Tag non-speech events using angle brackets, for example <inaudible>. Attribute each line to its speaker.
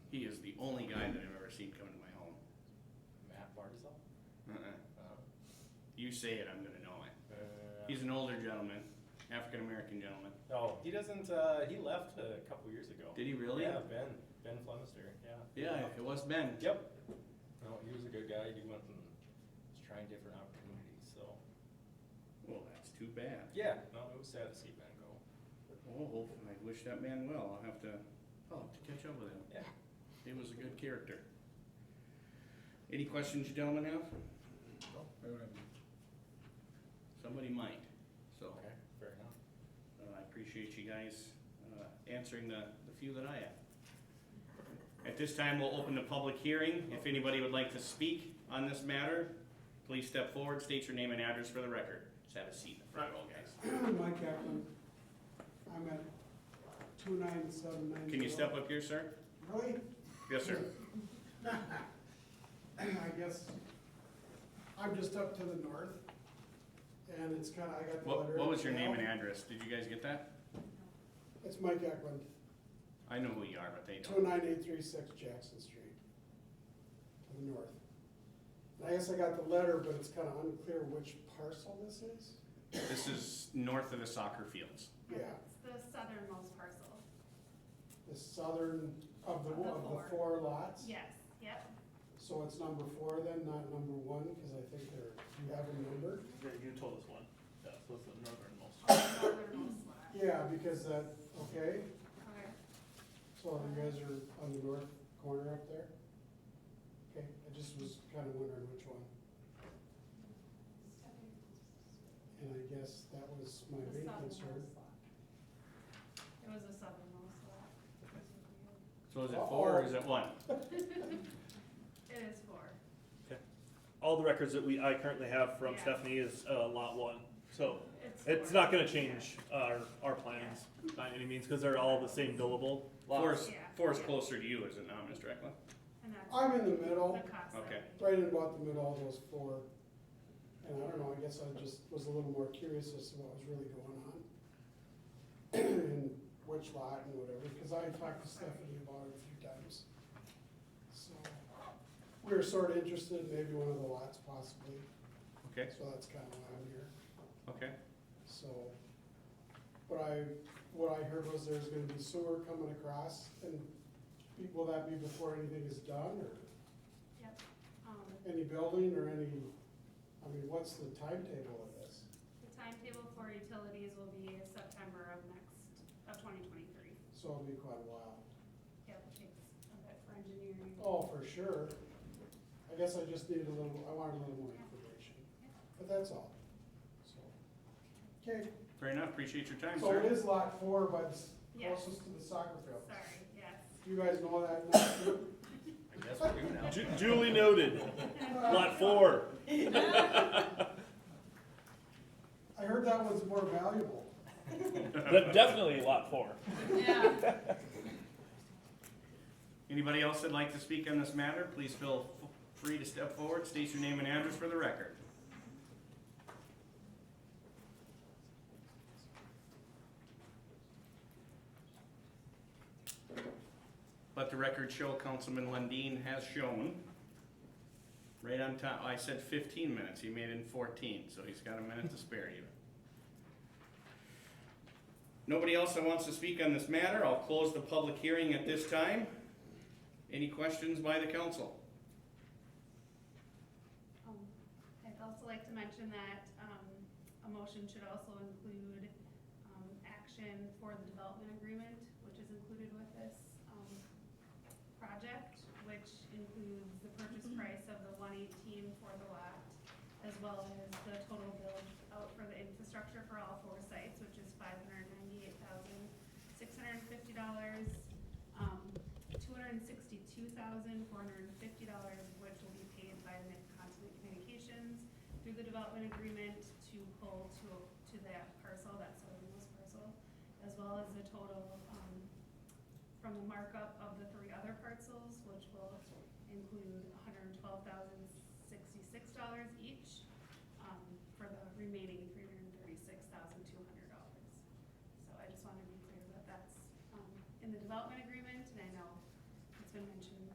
Speaker 1: He is the only guy that I've ever seen come into my home.
Speaker 2: Matt Barzal?
Speaker 1: Uh-uh.
Speaker 2: Uh,
Speaker 1: You say it, I'm gonna know it.
Speaker 2: uh,
Speaker 1: He's an older gentleman, African American gentleman.
Speaker 2: Oh, he doesn't, uh, he left a couple years ago.
Speaker 1: Did he really?
Speaker 2: Yeah, Ben, Ben Flemister, yeah.
Speaker 1: Yeah, it was Ben.
Speaker 2: Yep. No, he was a good guy, he went and was trying different opportunities, so.
Speaker 1: Well, that's too bad.
Speaker 2: Yeah, no, it was sad to see Ben go.
Speaker 1: Well, hopefully, I wish that man well. I'll have to, I'll have to catch up with him.
Speaker 2: Yeah.
Speaker 1: He was a good character. Any questions you gentlemen have? Somebody might, so.
Speaker 2: Okay, fair enough.
Speaker 1: Uh, I appreciate you guys uh, answering the, the few that I have. At this time, we'll open the public hearing. If anybody would like to speak on this matter, please step forward, state your name and address for the record. Just have a seat in the front row, guys.
Speaker 3: Mike Kaplan, I'm at two nine seven nine.
Speaker 1: Can you step up here, sir?
Speaker 3: Really? <laughs>
Speaker 1: Yes, sir.
Speaker 3: I guess, I'm just up to the north, and it's kinda, I got the
Speaker 1: What,
Speaker 3: letter.
Speaker 1: what was your name and
Speaker 3: now.
Speaker 1: address? Did you guys get that?
Speaker 3: It's Mike Kaplan,
Speaker 1: I know who you are, but they
Speaker 3: two
Speaker 1: don't.
Speaker 3: nine eight three six Jackson Street, to the north. And I guess I got the letter, but it's kinda unclear which parcel this is.
Speaker 1: This is north of the soccer fields.
Speaker 3: Yeah,
Speaker 4: It's the southernmost parcel.
Speaker 3: the southern of the,
Speaker 4: Of the
Speaker 3: of the four
Speaker 4: four.
Speaker 3: lots.
Speaker 4: Yes, yep.
Speaker 3: So it's number four then, not number one, because I think they're, do you have a number?
Speaker 5: Yeah, you told us one. Yeah, so it's the northernmost.
Speaker 4: On the <laughs> northernmost lot.
Speaker 3: Yeah, because that, okay,
Speaker 4: Okay.
Speaker 3: so you guys are on the north corner up there? Okay, I just was kind of wondering which one, and I guess that was my
Speaker 4: The
Speaker 3: main
Speaker 4: southernmost
Speaker 3: concern.
Speaker 4: lot. It was the southernmost lot.
Speaker 1: So is it four or
Speaker 3: Uh-oh.
Speaker 1: is it one?
Speaker 4: It is four.
Speaker 5: All the records that we, I currently have from
Speaker 4: Yeah.
Speaker 5: Stephanie is, uh, lot one, so it's
Speaker 4: four.
Speaker 5: not gonna change our, our plans by any means, cause they're all the same billable
Speaker 1: Four
Speaker 5: lots.
Speaker 1: is,
Speaker 4: Yeah.
Speaker 1: four is closer to you, is it not, Mr. Eklund?
Speaker 4: And that's
Speaker 3: I'm in the middle,
Speaker 4: the cost of
Speaker 1: Okay.
Speaker 4: it.
Speaker 3: right in about the middle of those four, and I don't know, I guess I just was a little more curious as to what was really going on. <clears throat> And which lot and whatever, because I talked to Stephanie about it a few times. So, we were sort of interested, in maybe one of the lots possibly.
Speaker 1: Okay,
Speaker 3: So that's kind of why I'm here,
Speaker 1: okay.
Speaker 3: so. But I, what I heard was there's gonna be sewer coming across, and be- will that be before anything is done, or
Speaker 4: Yep. Um,
Speaker 3: any building, or any, I mean, what's the timetable of this?
Speaker 4: the timetable for utilities will be September of next, of twenty twenty-three.
Speaker 3: So it'll be quite a while.
Speaker 4: Yep, it takes a bit for engineering.
Speaker 3: Oh, for sure. I guess I just needed a little, I wanted a little more information, but that's all, so. Okay,
Speaker 1: Fair enough, appreciate your time,
Speaker 3: so
Speaker 1: sir.
Speaker 3: it is lot four, but it's
Speaker 4: Yes.
Speaker 3: closest to the soccer field.
Speaker 4: Sorry, yes.
Speaker 3: You guys know that <coughs> now, too?
Speaker 1: I guess we do now.
Speaker 5: Ju- Duly noted, lot four.
Speaker 3: <laughs> I heard that one's more valuable.
Speaker 1: <laughs>
Speaker 5: De- Definitely lot four.
Speaker 4: <laughs> Yeah.
Speaker 1: Anybody else that'd like to speak on this matter, please feel f- free to step forward, state your name and address for the record. Let the record show Councilman Lundin has shown, right on time, I said fifteen minutes, he made it in fourteen, so he's got a minute to spare you. Nobody else that wants to speak on this matter, I'll close the public hearing at this time. Any questions by the council?
Speaker 4: Um, I'd also like to mention that, um, a motion should also include, um, action for the development agreement, which is included with this, um, project, which includes the purchase price of the one eighteen for the lot, as well as the total build out for the infrastructure for all four sites, which is five hundred ninety-eight thousand, six hundred and fifty dollars. Um, two hundred and sixty-two thousand, four hundred and fifty dollars, which will be paid by Midcontinent Communications through the development agreement to pull to, to that parcel, that southernmost parcel, as well as the total, um, from the markup of the three other parcels, which will include hundred and twelve thousand, sixty-six dollars each, um, for the remaining um,